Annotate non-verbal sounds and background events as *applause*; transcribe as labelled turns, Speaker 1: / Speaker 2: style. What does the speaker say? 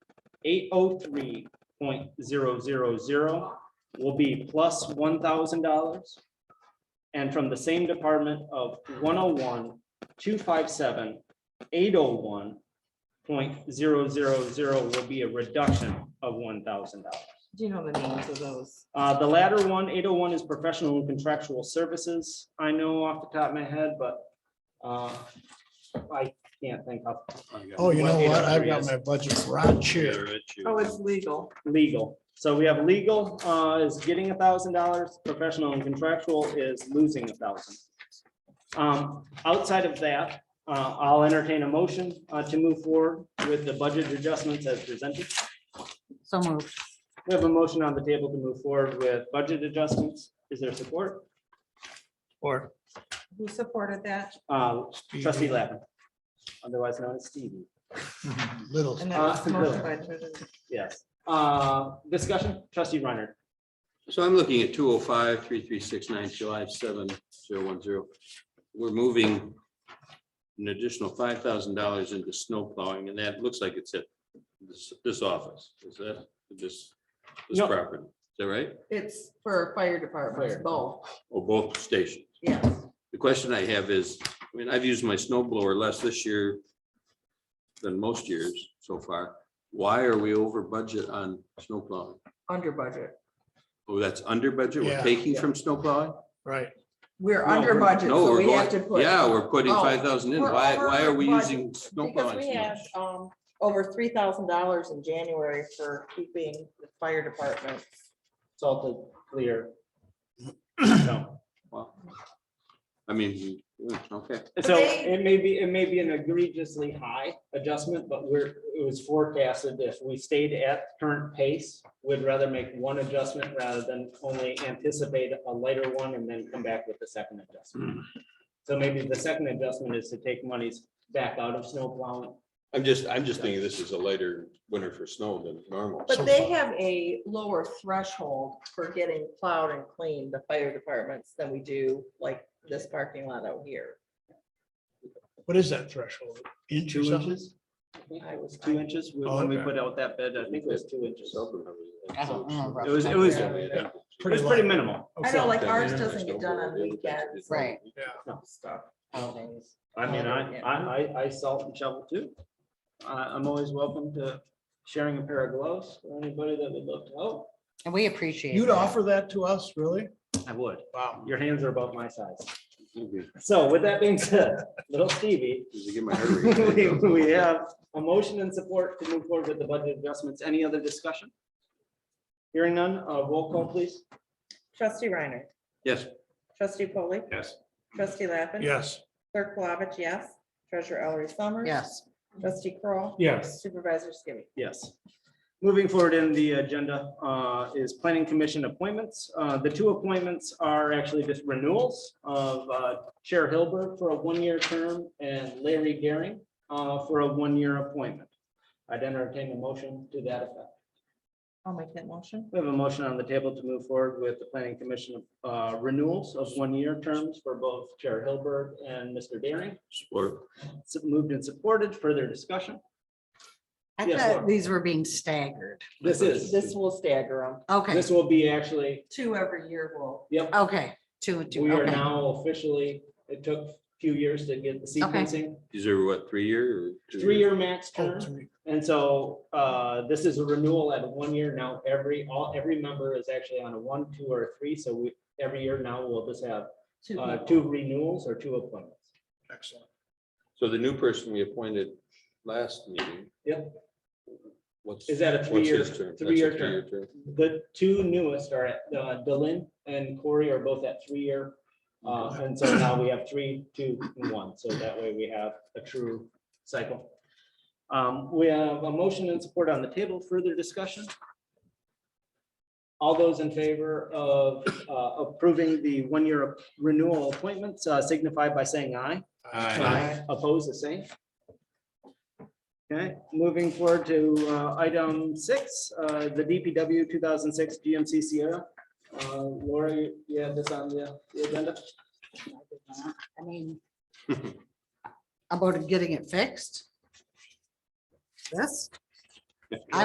Speaker 1: eight oh three point zero zero zero will be plus one thousand dollars. And from the same department of one oh one, two five seven, eight oh one point zero zero zero will be a reduction of one thousand dollars.
Speaker 2: Do you know the names of those?
Speaker 1: Uh, the latter one, 801, is professional and contractual services. I know off the top of my head, but, uh, I can't think of
Speaker 3: Oh, you know
Speaker 1: What
Speaker 3: what? I've
Speaker 1: 803
Speaker 3: got
Speaker 1: is.
Speaker 3: my budget right here.
Speaker 2: Oh, it's legal.
Speaker 1: legal. So we have legal, uh, is getting a thousand dollars, professional and contractual is losing a thousand. Um, outside of that, uh, I'll entertain a motion, uh, to move forward with the budget adjustments as presented.
Speaker 4: So moved.
Speaker 1: We have a motion on the table to move forward with budget adjustments. Is there support?
Speaker 3: Or
Speaker 2: Who supported that?
Speaker 1: Uh, Trustee Lappin. Otherwise known as Stevie.
Speaker 3: Mm-hmm. little.
Speaker 2: And that was
Speaker 1: Uh,
Speaker 2: motion by Treasurer-
Speaker 1: Yes. Uh, discussion, trustee Reiner.
Speaker 5: So I'm looking at two oh five, three, three, six, nine, July seven, zero, one, zero. We're moving an additional five thousand dollars into snow plowing, and that looks like it's at this, this office. Is that this, this
Speaker 1: No.
Speaker 5: property? Is that right?
Speaker 2: It's for fire departments,
Speaker 1: Fire.
Speaker 2: both,
Speaker 5: Or both stations?
Speaker 2: yes.
Speaker 5: The question I have is, I mean, I've used my snow blower less this year than most years so far. Why are we over budget on snow plowing?
Speaker 2: Under budget.
Speaker 5: Oh, that's under budget? We're
Speaker 3: Yeah.
Speaker 5: taking from snow plowing?
Speaker 3: Right.
Speaker 2: We're
Speaker 5: No,
Speaker 2: under
Speaker 5: we're-
Speaker 2: budget,
Speaker 5: no,
Speaker 2: so
Speaker 5: we're
Speaker 2: we have to
Speaker 5: going-
Speaker 2: put.
Speaker 5: Yeah, we're putting
Speaker 2: Oh,
Speaker 5: five thousand in.
Speaker 2: we're
Speaker 5: Why, why are we
Speaker 2: over
Speaker 5: using snow
Speaker 2: Because
Speaker 5: plowing?
Speaker 2: we had um over three thousand dollars in January for keeping the fire department.
Speaker 1: salted, clear. *clears throat* So
Speaker 5: Well, I mean, mm, okay,
Speaker 1: so
Speaker 2: they-
Speaker 1: it may be, it may be an egregiously high adjustment, but we're, it was forecasted if we stayed at current pace, we'd rather make one adjustment rather than only anticipate a lighter one and then come back with the second adjustment. So maybe the second adjustment is to take monies back out of snow plowing.
Speaker 6: I'm just, I'm just thinking this is a lighter winter for snow than normal.
Speaker 2: But they have a lower threshold for getting plowed and cleaned, the fire departments, than we do like this parking lot out here.
Speaker 3: What is that threshold? Inch or
Speaker 1: Two
Speaker 3: something?
Speaker 1: inches?
Speaker 2: I was.
Speaker 1: Two inches when we put out that bid, I think it was two inches.
Speaker 4: I don't remember.
Speaker 1: It was, it was, it
Speaker 6: Yeah.
Speaker 1: was pretty minimal.
Speaker 2: I know, like
Speaker 6: Yeah,
Speaker 2: ours
Speaker 6: yeah,
Speaker 2: doesn't get done on
Speaker 6: snowboard, yeah,
Speaker 2: weekends.
Speaker 4: Right.
Speaker 2: and Stuff.
Speaker 4: Holidays.
Speaker 1: I mean, I, I, I, I salt and shovel too. I, I'm always welcome to sharing a pair of gloves or anybody that would love to help.
Speaker 4: And we appreciate.
Speaker 3: You'd
Speaker 4: that.
Speaker 3: offer that to us, really?
Speaker 1: I would.
Speaker 3: Wow.
Speaker 1: Your hands are about my size.
Speaker 5: Okay.
Speaker 1: So with that being said, little Stevie,
Speaker 5: Just to get my heart
Speaker 1: *laughs* we,
Speaker 5: rate.
Speaker 1: we have a motion and support to move forward with the budget adjustments. Any other discussion? Hearing none, uh, roll call please.
Speaker 7: Trustee Reiner.
Speaker 5: Yes,
Speaker 7: Trustee Polly.
Speaker 6: Yes.
Speaker 7: Trustee Lappin.
Speaker 3: Yes.
Speaker 7: Clerk Plavich, yes. Treasurer Ellery Summers.
Speaker 4: Yes,
Speaker 7: Trustee Kroll,
Speaker 3: Yes.
Speaker 7: Supervisor Skibby.
Speaker 1: Yes. Moving forward in the agenda uh, is planning commission appointments. Uh, The two appointments are actually just renewals of uh, Chair Hilbert for a one-year term and Larry Gehring uh, for a one-year appointment. I'd entertain a motion to that effect.
Speaker 2: I'll make that motion.
Speaker 1: We have a motion on the table to move forward with the planning commission uh, renewals of one-year terms for both Chair Hilbert and Mr. Gehring.
Speaker 5: support.
Speaker 1: It's Moved and supported. Further discussion?
Speaker 4: I
Speaker 1: Yes,
Speaker 4: thought
Speaker 1: Laura.
Speaker 4: these were being staggered.
Speaker 1: This is,
Speaker 2: This will stagger them.
Speaker 4: Okay,
Speaker 1: this will be actually,
Speaker 2: Two every year will.
Speaker 1: yep,
Speaker 4: okay, two and two,
Speaker 1: We are
Speaker 4: okay.
Speaker 1: now officially, it took a few years to get the
Speaker 4: Okay.
Speaker 1: sequencing,
Speaker 5: These are what, three year or? two
Speaker 1: three-year max
Speaker 3: Oh,
Speaker 1: term.
Speaker 3: three.
Speaker 1: And so uh, this is a renewal at one year now. Every, all, every member is actually on a one, two, or three. So we, every year now, we'll just have
Speaker 2: Two
Speaker 1: uh,
Speaker 2: people.
Speaker 1: two renewals or two appointments.
Speaker 3: Excellent.
Speaker 5: So the new person we appointed last meeting.
Speaker 1: Yep.
Speaker 5: What's?
Speaker 1: Is that a
Speaker 5: what's
Speaker 1: three-year-
Speaker 5: his term? That's a
Speaker 1: three-year term.
Speaker 5: three-year term.
Speaker 1: The two newest are at, uh, Dylan and Corey are both at three-year. Uh, And so now we have three, two, and one. So that way we have a true cycle. Um, We have a motion and support on the table. Further discussion? All those in favor of uh, approving the one-year renewal appointments uh, signify by saying aye. Aye. Oppose the same. Okay, moving forward to uh, item six, uh, the DPW two thousand six GMC Sierra. Uh, Laura, you- you have this on the the agenda?
Speaker 4: I mean,
Speaker 1: *laughs*
Speaker 4: about getting it fixed. Yes.